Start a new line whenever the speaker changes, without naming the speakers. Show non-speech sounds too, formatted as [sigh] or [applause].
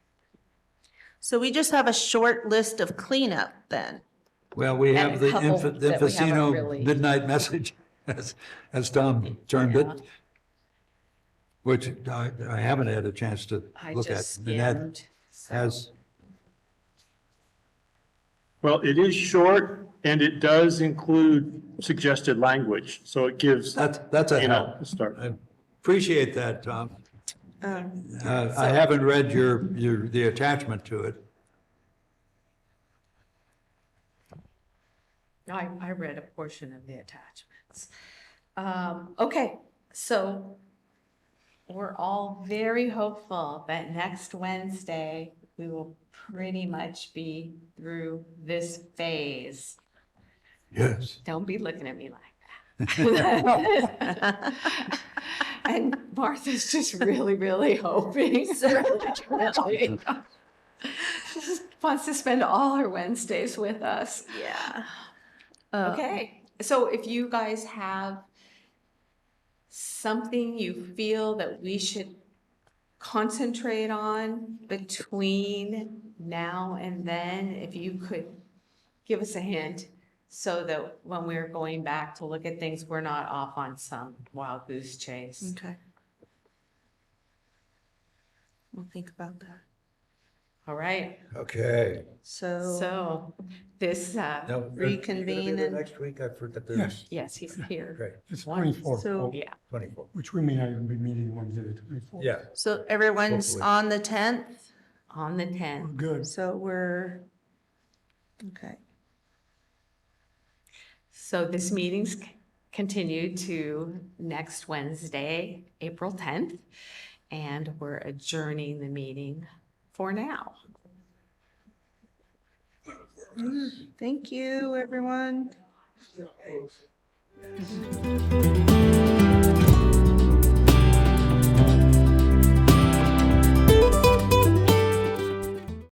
So we just have a short list of cleanup then.
Well, we
And
have
a
the
couple
inf- the
that we haven't
Infocino
really-
midnight message, [laughs] as, as Tom termed it, which I, I haven't had a chance to
I
look
just
at. And that
skimmed. so-
has,
Well, it is short and it does include suggested language, so it gives,
that's, that's a
you know,
help.
a start.
I appreciate that, Tom.
Um,
Uh, I haven't read your, your, the attachment to it.
I, I read a portion of the attachments. Um, okay, so we're all very hopeful that next Wednesday, we will pretty much be through this phase.
Yes.
Don't be looking at me like that. [laughs] And Martha's just really, really hoping. Really. She [laughs] just Wants to spend all her Wednesdays with us.
Yeah. Uh,
Okay, so if you guys have something you feel that we should concentrate on between now and then, if you could give us a hint so that when we're going back to look at things, we're not off on some wild goose chase.
Okay. We'll think about that.
All right,
Okay.
So,
so this, uh,
Now, are you gonna be
Reconvene
there
and-
Next week, I forgot
Yes.
there's,
yes, he's here.
great,
It's
One.
So-
twenty-four,
Yeah,
twenty-four,
which we may not even be meeting Wednesday, the twenty-four.
yeah.
so everyone's
Hopefully.
on the tenth,
on the
We're
tenth.
good.
so we're, okay.
So this meeting's c- continued to next Wednesday, April 10th, and we're adjourning the meeting for now.
Thank you, everyone.